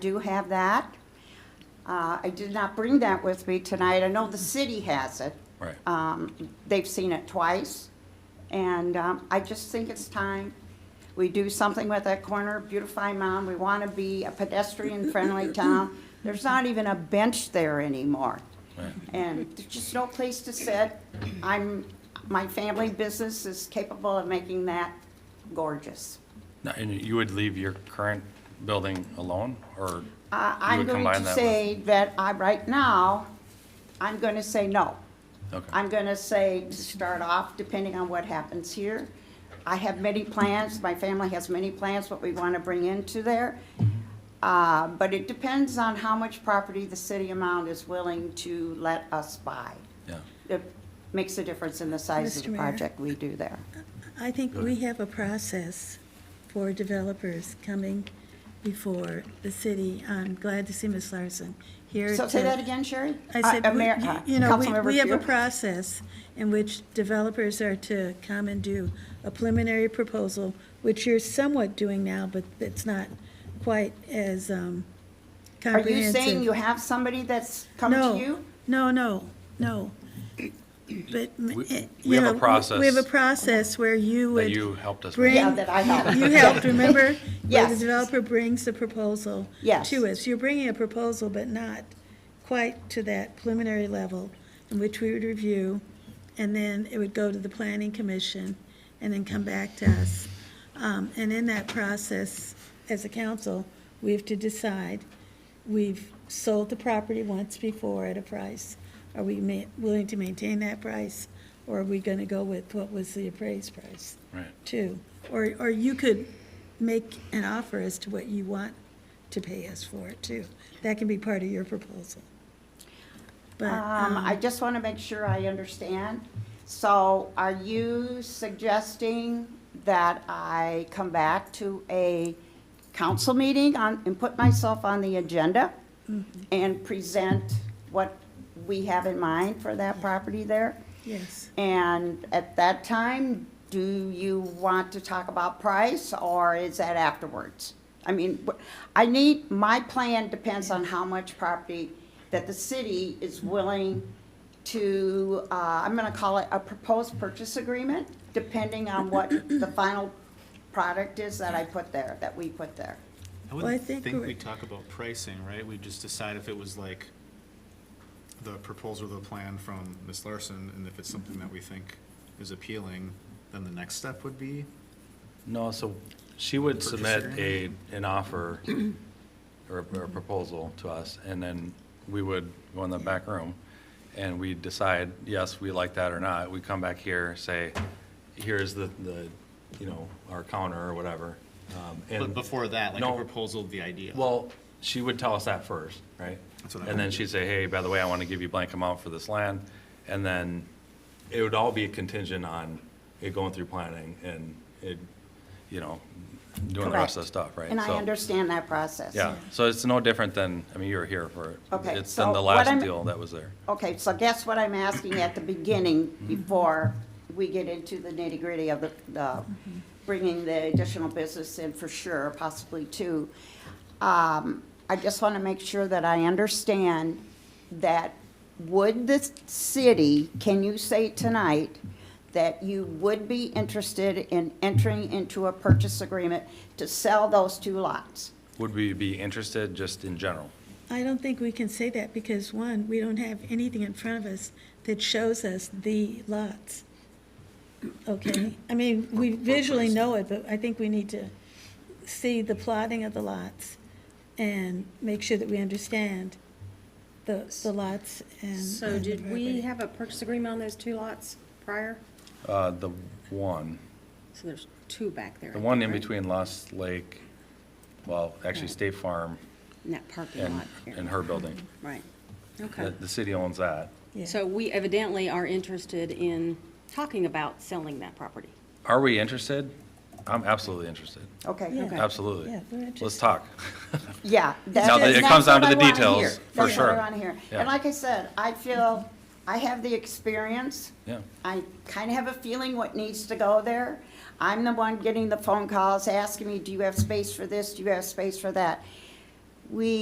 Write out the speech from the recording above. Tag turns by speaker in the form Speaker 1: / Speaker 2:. Speaker 1: do have that. Uh, I did not bring that with me tonight. I know the city has it.
Speaker 2: Right.
Speaker 3: Uh,
Speaker 1: Um, They've seen it twice, and um, I just think it's time we do something with that corner, beautify Mound. We want to be a pedestrian-friendly town. There's not even a bench there anymore.
Speaker 2: Right.
Speaker 1: And there's just no place to sit. I'm, my family business is capable of making that gorgeous.
Speaker 2: Now, And you would leave your current building alone, or?
Speaker 3: Uh,
Speaker 1: I-
Speaker 2: you
Speaker 1: I'm
Speaker 2: would
Speaker 1: going
Speaker 2: combine
Speaker 1: to
Speaker 2: that with-
Speaker 1: say that I, right now, I'm going to say no.
Speaker 2: Okay,
Speaker 1: I'm going to say, to start off, depending on what happens here. I have many plans, my family has many plans, what we want to bring into there. Uh, But it depends on how much property the city amount is willing to let us buy.
Speaker 2: yeah.
Speaker 1: It makes a difference in the size of
Speaker 3: Mr.
Speaker 1: the
Speaker 3: Mayor?
Speaker 1: project we do there.
Speaker 3: I think we have a process for developers coming before the city. I'm glad to see Ms. Larson here.
Speaker 1: So say
Speaker 3: to-
Speaker 1: that again, Sherry?
Speaker 3: I
Speaker 1: Uh,
Speaker 3: said,
Speaker 1: uh, Mayor- uh,
Speaker 3: we- you know, we-
Speaker 1: Councilmember
Speaker 3: we have a
Speaker 1: Pugh?
Speaker 3: process in which developers are to come and do a preliminary proposal, which you're somewhat doing now, but it's not quite as um,
Speaker 1: Are
Speaker 3: comprehensive.
Speaker 1: you saying you have somebody that's come to you?
Speaker 3: No, no, no, no. But, m- eh,
Speaker 2: we
Speaker 3: you
Speaker 2: have a
Speaker 3: know,
Speaker 2: process
Speaker 3: We have a process where you would.
Speaker 2: That you helped us
Speaker 3: bring-
Speaker 2: with.
Speaker 1: Yeah, that I helped.
Speaker 3: You helped, remember? Where the
Speaker 1: Yes.
Speaker 3: developer brings the proposal.
Speaker 1: Yes.
Speaker 3: To us. You're bringing a proposal, but not quite to that preliminary level in which we would review, and then it would go to the planning commission, and then come back to us. Um, and in that process, as a council, we have to decide, we've sold the property once before at a price. Are we ma- willing to maintain that price, or are we gonna go with what was the appraised price?
Speaker 2: Right.
Speaker 3: too. Or, or you could make an offer as to what you want to pay us for it too. That can be part of your proposal. But,
Speaker 4: Uh,
Speaker 1: Um,
Speaker 3: um,
Speaker 1: I just want to make sure I understand. So are you suggesting that I come back to a council meeting on, and put myself on the agenda?
Speaker 3: Mm-hmm.
Speaker 1: And present what we have in mind for that property there?
Speaker 3: yes,
Speaker 1: And at that time, do you want to talk about price or is that afterwards? I mean, wh- I need, my plan depends on how much property that the city is willing to, uh, I'm gonna call it a proposed purchase agreement, depending on what the final product is that I put there, that we put there.
Speaker 5: I
Speaker 3: Well, I
Speaker 5: wouldn't
Speaker 3: think
Speaker 5: think
Speaker 3: we're-
Speaker 5: we talk about pricing, right? We just decide if it was like the proposal, the plan from Ms. Larson, and if it's something that we think is appealing, then the next step would be,
Speaker 2: No, so she would
Speaker 5: Purchase
Speaker 2: submit a, an offer or a or a proposal to us, and then we would go in the back room, and we decide, yes, we like that or not. We come back here, say, here's the, the, you know, our counter or whatever. um,
Speaker 5: but
Speaker 2: and-
Speaker 5: before that, like
Speaker 2: No.
Speaker 5: a proposal, the idea.
Speaker 2: Well, she would tell us that first, right?
Speaker 5: That's what I
Speaker 2: And then
Speaker 5: meant.
Speaker 2: she'd say, hey, by the way, I want to give you blank amount for this land. And then it would all be contingent on it going through planning and it, you know, doing the rest of the
Speaker 1: Correct.
Speaker 2: stuff, right?
Speaker 1: And I
Speaker 2: So,
Speaker 1: understand that process.
Speaker 2: Yeah, so it's no different than, I mean, you were here for, it.
Speaker 1: Okay,
Speaker 2: it's
Speaker 1: so
Speaker 2: than the
Speaker 1: what
Speaker 2: last
Speaker 1: I'm-
Speaker 2: deal that was there.
Speaker 1: Okay, so guess what I'm asking at the beginning before we get into the nitty gritty of the, the, bringing the additional business in for sure, possibly two. Um, I just want to make sure that I understand that would the city, can you say tonight that you would be interested in entering into a purchase agreement to sell those two lots?
Speaker 2: Would we be interested just in general?
Speaker 3: I don't think we can say that because one, we don't have anything in front of us that shows us the lots. Okay, I mean, we visually know it, but I think we need to see the plotting of the lots and make sure that we understand the, the lots and.
Speaker 4: So
Speaker 3: and the
Speaker 4: did we
Speaker 3: property.
Speaker 4: have a purchase agreement on those two lots prior?
Speaker 2: Uh, the one,
Speaker 4: So there's two back there. I
Speaker 2: the
Speaker 4: think,
Speaker 2: one in
Speaker 4: right?
Speaker 2: between Lost Lake, well, actually State Farm
Speaker 4: In that parking
Speaker 2: and,
Speaker 4: lot
Speaker 2: and
Speaker 4: here.
Speaker 2: her building.
Speaker 4: Right,
Speaker 2: The,
Speaker 4: okay.
Speaker 2: the city owns that.
Speaker 3: Yeah.
Speaker 4: So we evidently are interested in talking about selling that property.
Speaker 2: Are we interested? I'm absolutely interested.
Speaker 1: Okay.
Speaker 3: Yeah.
Speaker 2: Absolutely.
Speaker 3: Uh, Yeah, we're
Speaker 2: Let's
Speaker 3: interested.
Speaker 2: talk.
Speaker 1: Yeah.
Speaker 2: Now that it comes down to the details,
Speaker 3: for
Speaker 1: That's
Speaker 2: sure.
Speaker 1: what I want to hear.
Speaker 2: Yeah.
Speaker 1: And like I said, I feel, I have the experience.
Speaker 2: Yeah.
Speaker 1: I kind of have a feeling what needs to go there. I'm the one getting the phone calls, asking me, do you have space for this? Do you have space for that? we